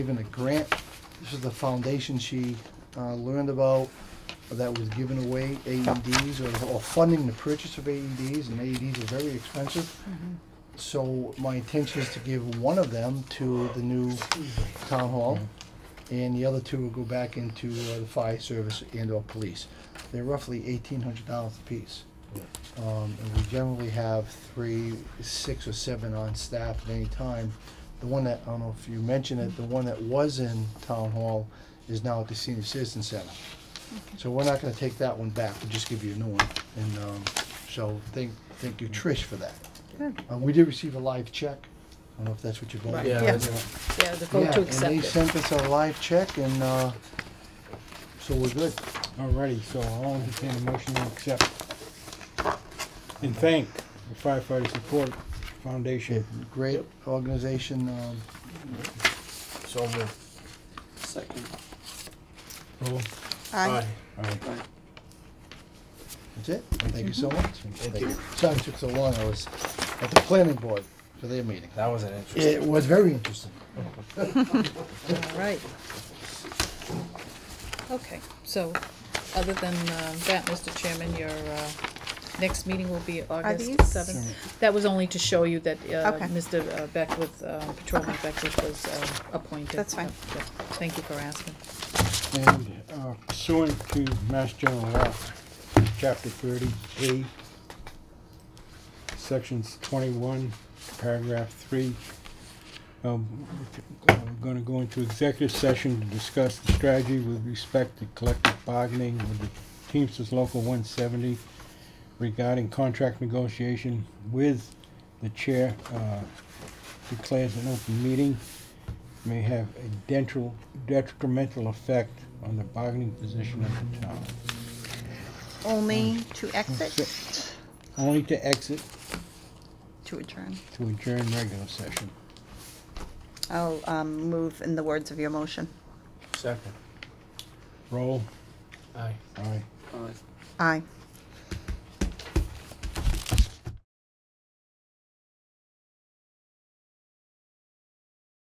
given a grant. This is the foundation she uh, learned about uh, that was giving away AEDs or- or funding the purchase of AEDs, and AEDs are very expensive. So my intention is to give one of them to the new town hall, and the other two will go back into uh, the fire service and/or police. They're roughly eighteen hundred dollars apiece. Um, and we generally have three, six or seven on staff at any time. The one that, I don't know if you mentioned it, the one that was in town hall is now at the senior citizen center. So we're not gonna take that one back, we'll just give you a new one, and, um, so thank, thank you Trish for that. Good. Uh, we did receive a live check, I don't know if that's what you're going Right. for. Yeah. Yeah, Yeah, the vote Yeah, to and accept they it. sent us a live check and, uh, so we're good. Alrighty, so I'll entertain a motion to accept and thank the firefighter support foundation. Great organization, um, So moved. Second. Roll. Aye. Alright, That's it. Thank you so Mm-hmm. much. Thank you. Sorry it took so long. I was at the planning board for their meeting. That was an interesting. It was very interesting. All right. Okay, so, other than um, that, Mr. Chairman, your uh, next meeting will be August these- seventh. That was only to show you that uh, Okay. Mr. Beckwith, uh, Patrolman Beckwith was uh, appointed. That's fine. Yep, yep. Thank you for asking. and uh, pursuant to Mass General Law, Chapter thirty A, Sections twenty-one, Paragraph three. um, We're gonna go into executive session to discuss the strategy with respect to collective bargaining with the Teamsters Local one seventy regarding contract negotiation with the chair, uh, declares an open meeting may have a dental detrimental effect on the bargaining position of the town. Only to exit, Only to exit to adjourn. to adjourn regular session. I'll um, move in the words of your motion. Second. Roll. Aye. Aye. Aye.